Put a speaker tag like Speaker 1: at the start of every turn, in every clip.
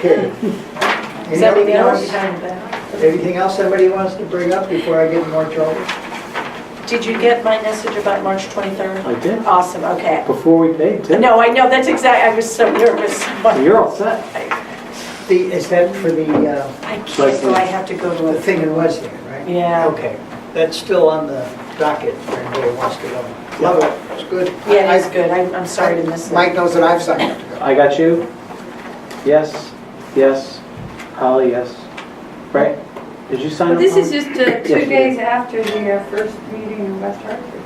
Speaker 1: Period.
Speaker 2: Does that mean
Speaker 1: Anything else?
Speaker 2: behind the back?
Speaker 1: Anything else somebody wants to bring up before I get in more trouble?
Speaker 2: Did you get my message about March 23rd?
Speaker 3: I did,
Speaker 2: Awesome, okay.
Speaker 3: before we paid, didn't
Speaker 2: No, I know, that's exact, I was so nervous.
Speaker 3: I? You're all set.
Speaker 1: The, is that for the, uh,
Speaker 2: I can't, so I have to go
Speaker 1: the
Speaker 2: to
Speaker 1: thing in Wesleyan, right?
Speaker 2: Yeah.
Speaker 1: Okay, that's still on the docket, if anybody wants to go. Love it, it's good.
Speaker 2: a, yeah, it's good, I'm, I'm sorry to miss it.
Speaker 4: Mike knows that I've signed up to go.
Speaker 3: I got you? Yes, yes, Holly, yes. Right? Did you sign
Speaker 5: Well,
Speaker 3: up?
Speaker 5: this is
Speaker 3: Holly?
Speaker 5: just uh,
Speaker 3: Yes,
Speaker 5: two
Speaker 3: it
Speaker 5: days after the uh, first meeting in West Hartford.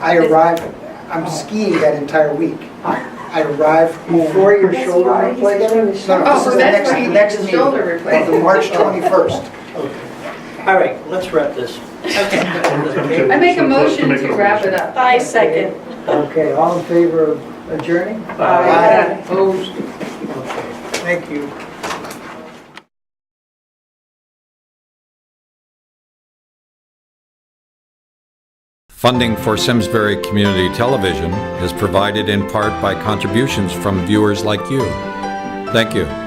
Speaker 4: I arrived, I'm skiing that entire week. I arrived
Speaker 1: Before your
Speaker 5: That's
Speaker 1: shoulder
Speaker 5: why he's doing
Speaker 1: replacement?
Speaker 5: this.
Speaker 4: No, no, this
Speaker 5: Oh,
Speaker 4: is
Speaker 5: so
Speaker 4: the
Speaker 5: that's
Speaker 4: next-
Speaker 5: why he
Speaker 4: the next
Speaker 5: needs a
Speaker 4: meeting.
Speaker 5: shoulder
Speaker 4: on the
Speaker 5: replacement.
Speaker 4: March 21st.
Speaker 1: All right, let's wrap this. Okay.
Speaker 5: I make a
Speaker 6: So close to
Speaker 5: motion
Speaker 6: making
Speaker 5: to
Speaker 6: a
Speaker 5: wrap
Speaker 6: motion.
Speaker 5: it up.
Speaker 2: I second.
Speaker 1: Okay, all in favor of adjourning?
Speaker 2: Aye.
Speaker 1: Opposed? Okay, thank you.
Speaker 7: Funding for Simsbury Community Television is provided in part by contributions from viewers like you. Thank you.